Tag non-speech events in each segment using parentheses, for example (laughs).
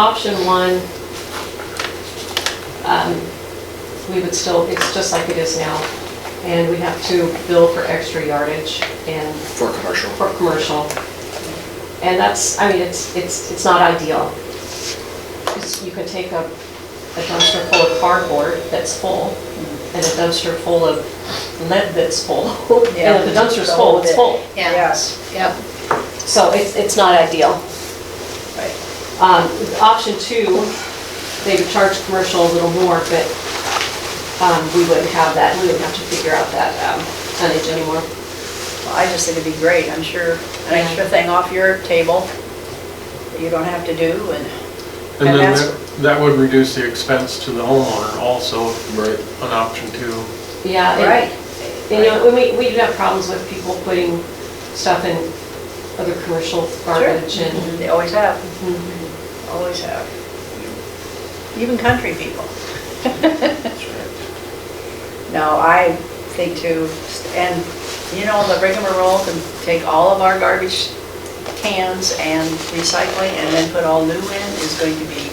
Option one, um, we would still, it's just like it is now, and we have to bill for extra yardage and For commercial. for commercial. And that's, I mean, it's, it's, it's not ideal. 'Cause You could take a a dumpster full of cardboard that's full, and a dumpster full of lead that's full. (laughs) Yeah. And if the dumpster's full, it's full. Yes. Yep. So it's, it's not ideal. Right. Um, Option two, they would charge commercial a little more, but um, we wouldn't have that, we wouldn't have to figure out that um, tonnage anymore. Well, I just think it'd be great, I'm sure, an Yeah. extra thing off your table that you don't have to do and, And And then that's- that- that would reduce the expense to the homeowner also, Right. an option too. Yeah. and- right, You know, when we, we do have problems with people putting stuff in other commercial garbage and, they always have, Mhm. always have. Even country people. (laughs) No, I think too, and you know, the rigmarole can take all of our garbage cans and recycling and then put all new in is going to be,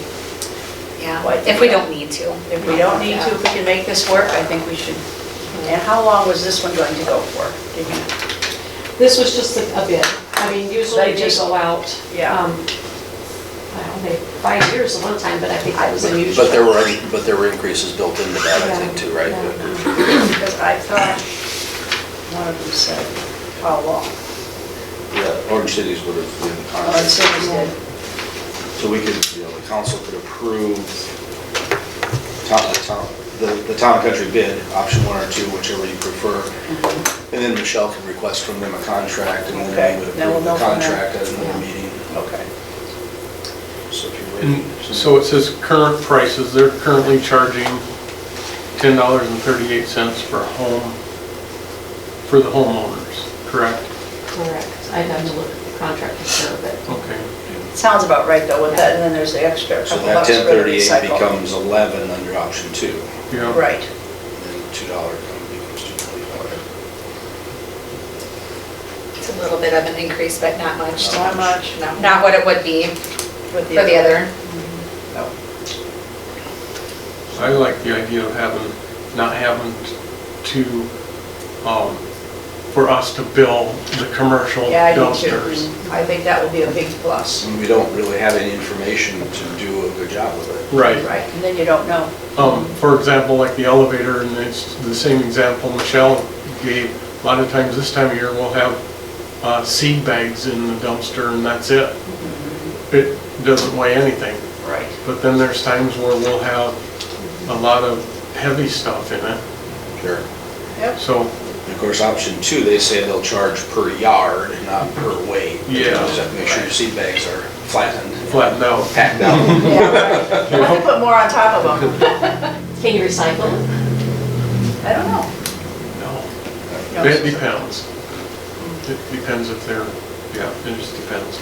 Yeah, What? if we don't need to. if we don't need to, if we can make this work, I think we should. And how long was this one going to go for? Did you- this was just a a bit. I mean, usually They they just- go out. Yeah. um, I don't know, five years at one time, but I think that was unusual. But there were, but there were increases built into that, I think, too, right? Yeah. Because I thought one of them said, how long? Yeah, Orange Cities would have been Oh, and contract. Cindy's did. So we could, you know, the council could approve town, town, the, the town and country bid, option one or two, whichever you prefer. And then Michelle can request from them a contract and Mm-hmm. Okay, then we would then we'll approve the know from there. contract at another meeting. Okay. So if you're And ready. Mm, so it says current prices, they're currently charging ten dollars and thirty-eight cents for a home, for the homeowners, correct? Correct. I'd have to look at the contract for sure, but Okay. Sounds about right though with that, and then there's the extra So couple that bucks for ten the thirty-eight recycle. becomes eleven under option two, Yeah. Right. and then two dollar becomes two forty-five. It's a little bit of an increase, but not much. Not much. No, Not what it would be With for the other. No. I like the idea of having, not having to, um, for us to bill the commercial Yeah, I do too. dumpsters. I think that would be a big plus. And we don't really have any information to do a good job with it. Right. Right, and then you don't know. Um, For example, like the elevator, and it's the same example Michelle gave, a lot of times this time of year, we'll have uh, seed bags in the dumpster and that's it. It doesn't weigh anything, Right. but then there's times where we'll have a lot of heavy stuff in it, Sure. Yep. so, And of course, option two, they say they'll charge per yard, not per weight. Yeah. You just have to make sure your seed bags are flattened. flattened out. Packed out. Yeah, right. You have to put more on top of them. can you recycle? them? I don't know. No, No. it depends. It depends if they're, yeah, it just depends.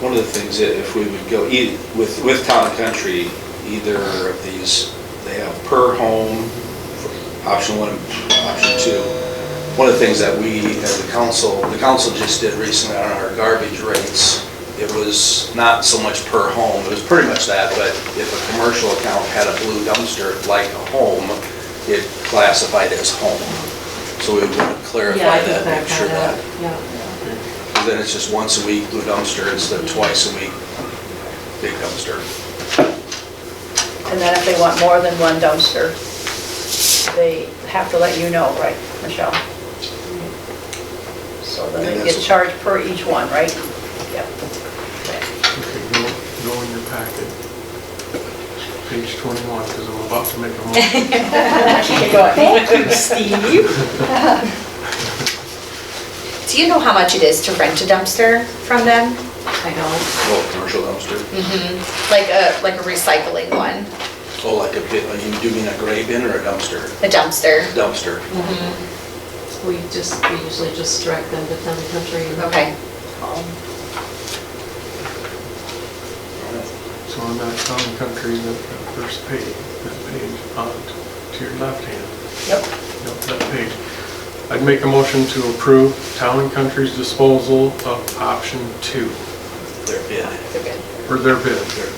One of the things that if we would go, e- with, with Town and Country, either of these, they have per home, option one, option two. One of the things that we, as the council, the council just did recently on our garbage rates, it was not so much per home, it was pretty much that, but if a commercial account had a blue dumpster like a home, it classified as home. So we would want Yeah, I to clarify think that, that make sure got that. out. Yeah. And Then it's just once a week blue dumpster instead of twice a week big dumpster. And then if they want more than one dumpster, they have to let you know, right, Michelle? So then And they that's- get charged per each one, right? Yep. Okay, go, go in your packet. Page 21, because I'm about to make a motion. Keep going. (laughs) Do you know how much it is to rent a dumpster from them? I don't, Oh, commercial dumpster. Like a, like a recycling one, Oh, like a bit, you do mean a gray bin or a dumpster? a dumpster? Dumpster. we just, we usually just direct them to town and country. and- Okay. So on that town country, that that first page, that page, uh, to your left hand, Yep. yep, that page. I'd make a motion to approve town and country's disposal of option two They're bid. They're good. for their bid.